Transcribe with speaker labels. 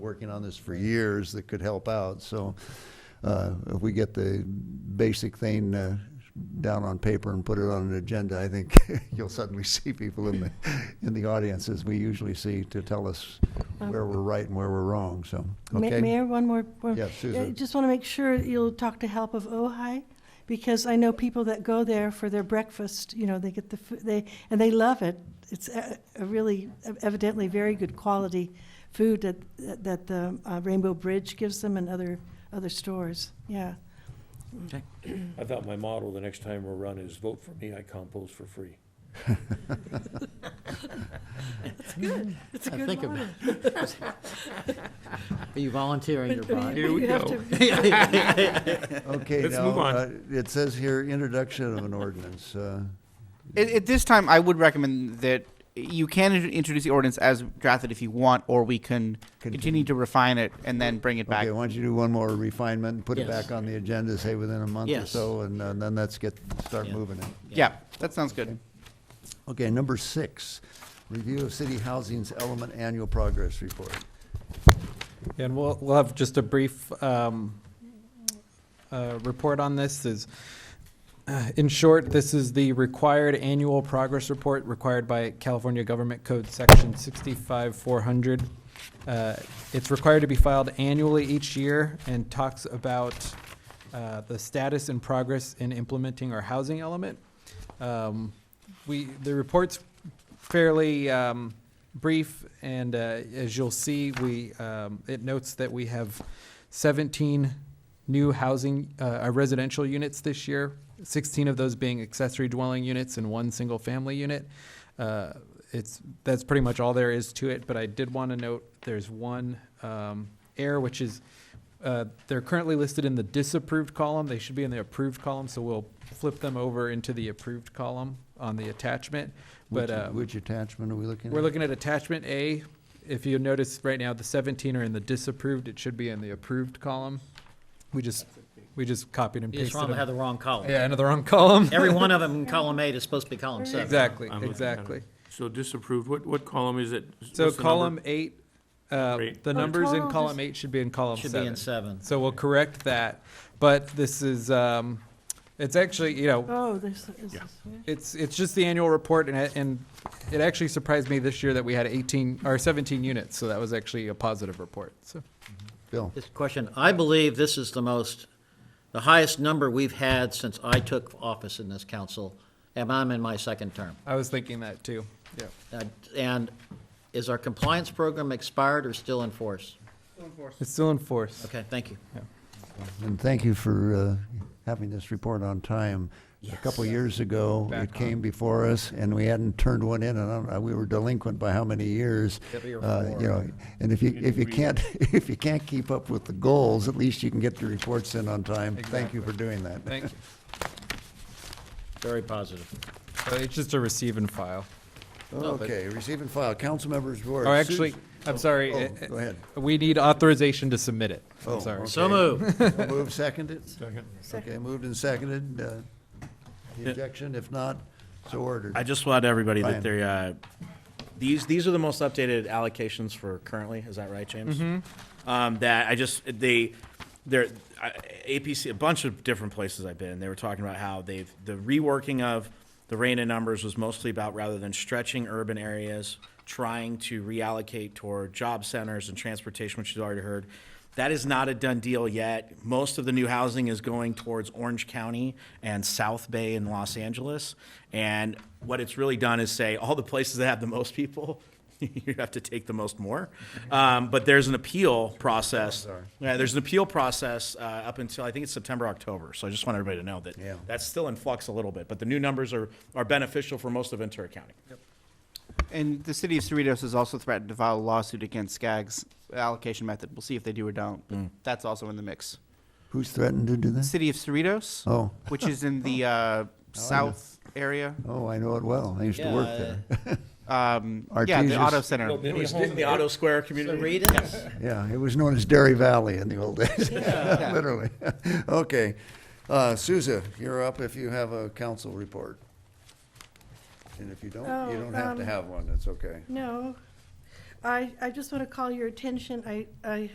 Speaker 1: working on this for years that could help out, so uh, if we get the basic thing uh, down on paper and put it on an agenda, I think you'll suddenly see people in the, in the audience as we usually see to tell us where we're right and where we're wrong, so,
Speaker 2: Ma-
Speaker 1: okay?
Speaker 2: Mayor, one more. one-
Speaker 1: Yeah, Susan.
Speaker 2: I Just want to make sure you'll talk to Help of Ojai, because I know people that go there for their breakfast, you know, they get the, food they, and they love it. It's a a really evidently very good quality food that, that the uh, Rainbow Bridge gives them and other, other stores, yeah.
Speaker 3: I thought my model the next time we're run is vote for me, I compost for free.
Speaker 2: It's a
Speaker 4: I
Speaker 2: good
Speaker 4: think
Speaker 2: model.
Speaker 4: about Are you volunteering your body?
Speaker 2: Here we go.
Speaker 1: Okay,
Speaker 3: Let's
Speaker 1: now,
Speaker 3: move on.
Speaker 1: uh, it says here, introduction of an ordinance. uh,
Speaker 5: At, at this time, I would recommend that you can in- introduce the ordinance as drafted if you want, or we can continue,
Speaker 1: Continue.
Speaker 5: to refine it and then bring it back.
Speaker 1: Okay, why don't you do one more refinement, and put it
Speaker 4: Yes.
Speaker 1: back on the agenda, say within a month or
Speaker 4: Yes.
Speaker 1: so, and uh, then let's get, start
Speaker 4: Yeah.
Speaker 1: moving it.
Speaker 5: yeah. that sounds good.
Speaker 1: Okay, number six, review of city housing's element annual progress report.
Speaker 6: And we'll, we'll have just a brief um, uh, report on this is, uh, in short, this is the required annual progress report required by California Government Code Section 65400. Uh, It's required to be filed annually each year and talks about uh, the status and progress in implementing our housing element. Um, We, the report's fairly um, brief, and uh, as you'll see, we, um, it notes that we have 17 new housing, uh, uh, residential units this year, 16 of those being accessory dwelling units and one single-family unit. Uh, It's, that's pretty much all there is to it, but I did want to note, there's one um, error, which is, uh, they're currently listed in the disapproved column. They should be in the approved column, so we'll flip them over into the approved column on the attachment.
Speaker 1: Which-
Speaker 6: But uh,
Speaker 1: Which attachment are we looking at?
Speaker 6: we're looking at attachment A. If you notice right now, the 17 are in the disapproved. It should be in the approved column. We just, we just copied and
Speaker 4: You just
Speaker 6: pasted
Speaker 4: want to have
Speaker 6: them.
Speaker 4: the wrong column.
Speaker 6: Yeah, into the wrong column.
Speaker 4: Every one of them in column eight is supposed to be column seven.
Speaker 6: Exactly,
Speaker 3: I'm looking at it.
Speaker 6: exactly.
Speaker 3: So disapproved, what, what column is it?
Speaker 6: So
Speaker 3: What's the number?
Speaker 6: column eight, uh,
Speaker 3: Great.
Speaker 6: the
Speaker 2: Oh,
Speaker 6: numbers in
Speaker 2: total
Speaker 6: column
Speaker 2: dis-
Speaker 6: eight should be in column
Speaker 4: Should be in
Speaker 6: seven.
Speaker 4: seven.
Speaker 6: So we'll correct that. But this is, um, it's actually, you know,
Speaker 2: Oh, this is,
Speaker 6: It's, it's just the annual report, and, it- and it actually surprised me this year that we had 18, or 17 units, so that was actually a positive report, so.
Speaker 1: Bill,
Speaker 4: This question, I believe this is the most, the highest number we've had since I took office in this council, and I'm in my second term.
Speaker 6: I was thinking that too, yeah.
Speaker 4: Uh, And is our compliance program expired or still in force?
Speaker 6: It's still in force.
Speaker 4: Okay, thank you.
Speaker 1: and thank you for uh, having this report on time. A couple years ago, it
Speaker 6: Back
Speaker 1: came before us, and we hadn't turned one in, and I don't know, we were delinquent by how many years?
Speaker 4: Three or
Speaker 1: Uh, You know, and if you, if you can't, if you can't keep up with the goals, at least you can get the reports in on time. Thank you for doing that.
Speaker 6: Thank you.
Speaker 4: Very positive.
Speaker 6: So It's just a receive and file.
Speaker 1: Okay, receive and file, council members' report.
Speaker 6: Oh, actually, I'm sorry.
Speaker 1: Oh,
Speaker 6: eh,
Speaker 1: go ahead.
Speaker 6: We need authorization to submit it,
Speaker 1: Oh,
Speaker 6: I'm sorry.
Speaker 1: okay.
Speaker 4: So moved.
Speaker 1: Move seconded?
Speaker 3: Second.
Speaker 1: Okay, moved and seconded. uh, the Objection, if not, so ordered.
Speaker 7: I just want everybody
Speaker 1: Brian.
Speaker 7: that they, uh, these, these are the most updated allocations for currently, is that right, James? Um, that I just, they, they're, I- APC, a bunch of different places I've been, they were talking about how they've, the reworking of the RANA numbers was mostly about rather than stretching urban areas, trying to reallocate toward job centers and transportation, which you've already heard. That is not a done deal yet. Most of the new housing is going towards Orange County and South Bay in Los Angeles. And what it's really done is say all the places that have the most people, you have to take the most more. Um, but there's an appeal process. Yeah, there's an appeal process uh, up until I think it's September, October. So I just want everybody to know that
Speaker 1: Yeah.
Speaker 7: that's still in flux a little bit. But the new numbers are, are beneficial for most of Ventura County.
Speaker 5: And the city of Cerritos has also threatened to file a lawsuit against Skag's allocation method. We'll see if they do or don't.
Speaker 1: Mm.
Speaker 5: But That's also in the mix.
Speaker 1: Who's threatened to do
Speaker 5: The
Speaker 1: that?
Speaker 5: city of Cerritos,
Speaker 1: Oh,
Speaker 5: which is in the uh, south area.
Speaker 1: oh, I know it well. I used to work there.
Speaker 5: Um, yeah, the
Speaker 1: Artesia's-
Speaker 5: auto center.
Speaker 7: It was in the Auto Square community.
Speaker 4: Read it?
Speaker 1: Yeah, it was known as Dairy Valley in the old days, literally. Okay. Uh, Souza, you're up if you have a council report. And if you don't, you
Speaker 2: Oh,
Speaker 1: don't have to
Speaker 2: um,
Speaker 1: have one. That's okay.
Speaker 2: no. I, I just want to call your attention, I, I